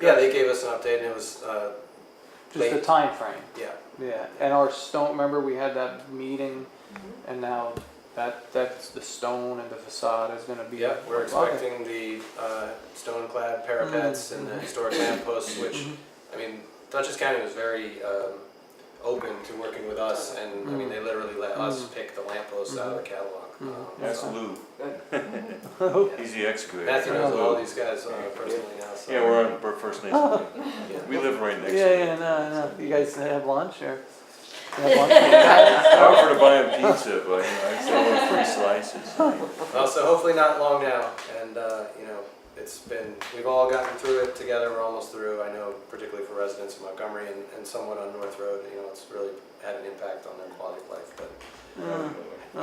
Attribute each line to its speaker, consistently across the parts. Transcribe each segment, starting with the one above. Speaker 1: Yeah, they gave us an update and it was, uh,
Speaker 2: Just the
Speaker 1: Late.
Speaker 2: time frame.
Speaker 1: yeah,
Speaker 2: Yeah, and our stone. Remember, we had that meeting, and now that that's the stone and the facade is going to be.
Speaker 1: yeah, we're
Speaker 2: Okay.
Speaker 1: expecting the, uh, stone-clad parapets and the historic lamp posts, which,
Speaker 2: Mhm.
Speaker 1: I mean, Dutchess County was very, um, open to working with us and, I mean, they literally let us
Speaker 2: Mhm.
Speaker 1: pick the lamp posts out of the catalog.
Speaker 2: Mhm.
Speaker 1: Um,
Speaker 2: Yes.
Speaker 3: That's Lou.
Speaker 1: so, yeah.
Speaker 3: He's the excavator.
Speaker 1: Matthew
Speaker 3: right?
Speaker 1: knows all
Speaker 3: Lou.
Speaker 1: these guys uh, personally now, so.
Speaker 3: Yeah, we're on, we're First Nation.
Speaker 1: Yeah.
Speaker 3: We live right
Speaker 2: Yeah,
Speaker 3: next to
Speaker 2: yeah,
Speaker 3: him.
Speaker 2: no, no. You guys have lunch or? You have lunch?
Speaker 3: I offered to buy him pizza, but you know, I still want free slices.
Speaker 1: Well, so hopefully not long now, and, uh, you know, it's been, we've all gotten through it together, we're almost through, I know particularly for residents in Montgomery and, and somewhat on North Road, you know, it's really had an impact on their quality of life, but
Speaker 2: Mm,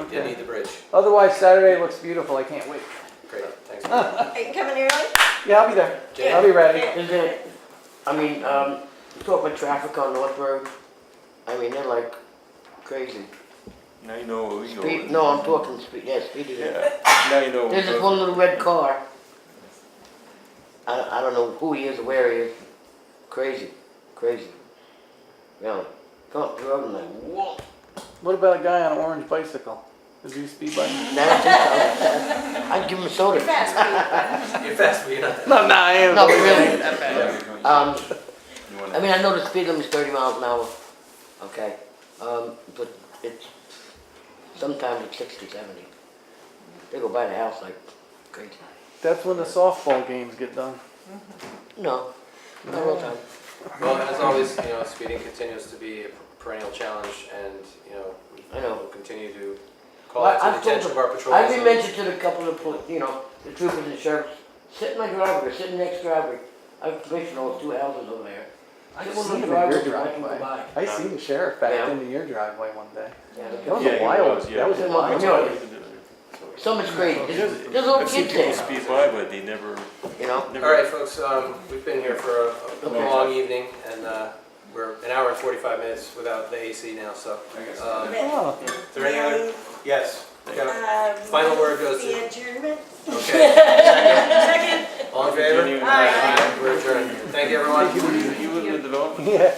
Speaker 1: we did need
Speaker 2: okay.
Speaker 1: the bridge,
Speaker 2: Otherwise, Saturday looks beautiful. I can't wait.
Speaker 1: great, thanks. man.
Speaker 4: Are you coming early?
Speaker 2: Yeah, I'll be there.
Speaker 1: Jane?
Speaker 2: I'll be ready.
Speaker 4: Yeah.
Speaker 5: Is it, I mean, um, you talk about traffic on North Road, I mean, they're like crazy.
Speaker 3: Now you know what we go.
Speaker 5: Speed,
Speaker 3: with.
Speaker 5: no, I'm talking speed, yeah, speed is,
Speaker 3: Yeah, now you know. what
Speaker 5: there's
Speaker 3: we
Speaker 5: this
Speaker 3: go
Speaker 5: one
Speaker 3: with.
Speaker 5: little red car. I, I don't know who he is or where he is, crazy, crazy. Really, come up the road and like, whoa.
Speaker 2: What about a guy on an orange bicycle? Is he speed biking?
Speaker 5: Now, I- I'd give him a soda.
Speaker 4: You're fast,
Speaker 1: You're fast, but you're not that.
Speaker 2: No, no, I am.
Speaker 5: No, but really, um,
Speaker 3: You wanna-
Speaker 5: I mean, I know the speed limit's thirty miles an hour, okay, um, but it's, sometimes it's sixty, seventy. They go by the house like crazy.
Speaker 2: That's when the softball games get done.
Speaker 5: No, not all the time.
Speaker 1: Well, as always, you know, speeding continues to be a perennial challenge, and, you know,
Speaker 5: I know.
Speaker 1: we'll continue to call
Speaker 5: Well,
Speaker 1: out to the
Speaker 5: I've told
Speaker 1: attention of our patrol.
Speaker 5: I've been mentioned to the couple of, poli- you know, the troopers and sheriffs, sit in my driveway, sit in the next driveway. I've commissioned those two houses over there.
Speaker 2: I
Speaker 5: Sit
Speaker 2: seen
Speaker 5: one of
Speaker 2: him
Speaker 5: the
Speaker 2: in your
Speaker 5: drivers, I can go
Speaker 2: driveway.
Speaker 5: by.
Speaker 2: I seen the sheriff back
Speaker 5: Yeah.
Speaker 2: into your driveway one day.
Speaker 5: Yeah,
Speaker 2: That was
Speaker 3: Yeah,
Speaker 2: a
Speaker 3: he
Speaker 2: while.
Speaker 3: was, yeah.
Speaker 2: That was a
Speaker 5: Yeah.
Speaker 2: while.
Speaker 5: Yeah. Some is great, there's, there's little
Speaker 3: I've seen
Speaker 5: kids
Speaker 3: people
Speaker 5: there,
Speaker 3: speed by, but they never,
Speaker 5: you know?
Speaker 1: All
Speaker 3: never.
Speaker 1: right, folks, um, we've been here for a- a
Speaker 5: Okay.
Speaker 1: long evening, and uh, we're an hour and 45 minutes without the AC now, so. um,
Speaker 4: but-
Speaker 2: Oh.
Speaker 1: Is there any other? Yes. Yeah.
Speaker 4: Um,
Speaker 1: Final word goes to-
Speaker 4: The adjournment?
Speaker 1: Okay.
Speaker 4: Second?
Speaker 1: All in favor?
Speaker 3: Continue.
Speaker 4: Aye.
Speaker 1: We're adjourned. Thank you, everyone.
Speaker 3: You live in the development?
Speaker 2: Yeah.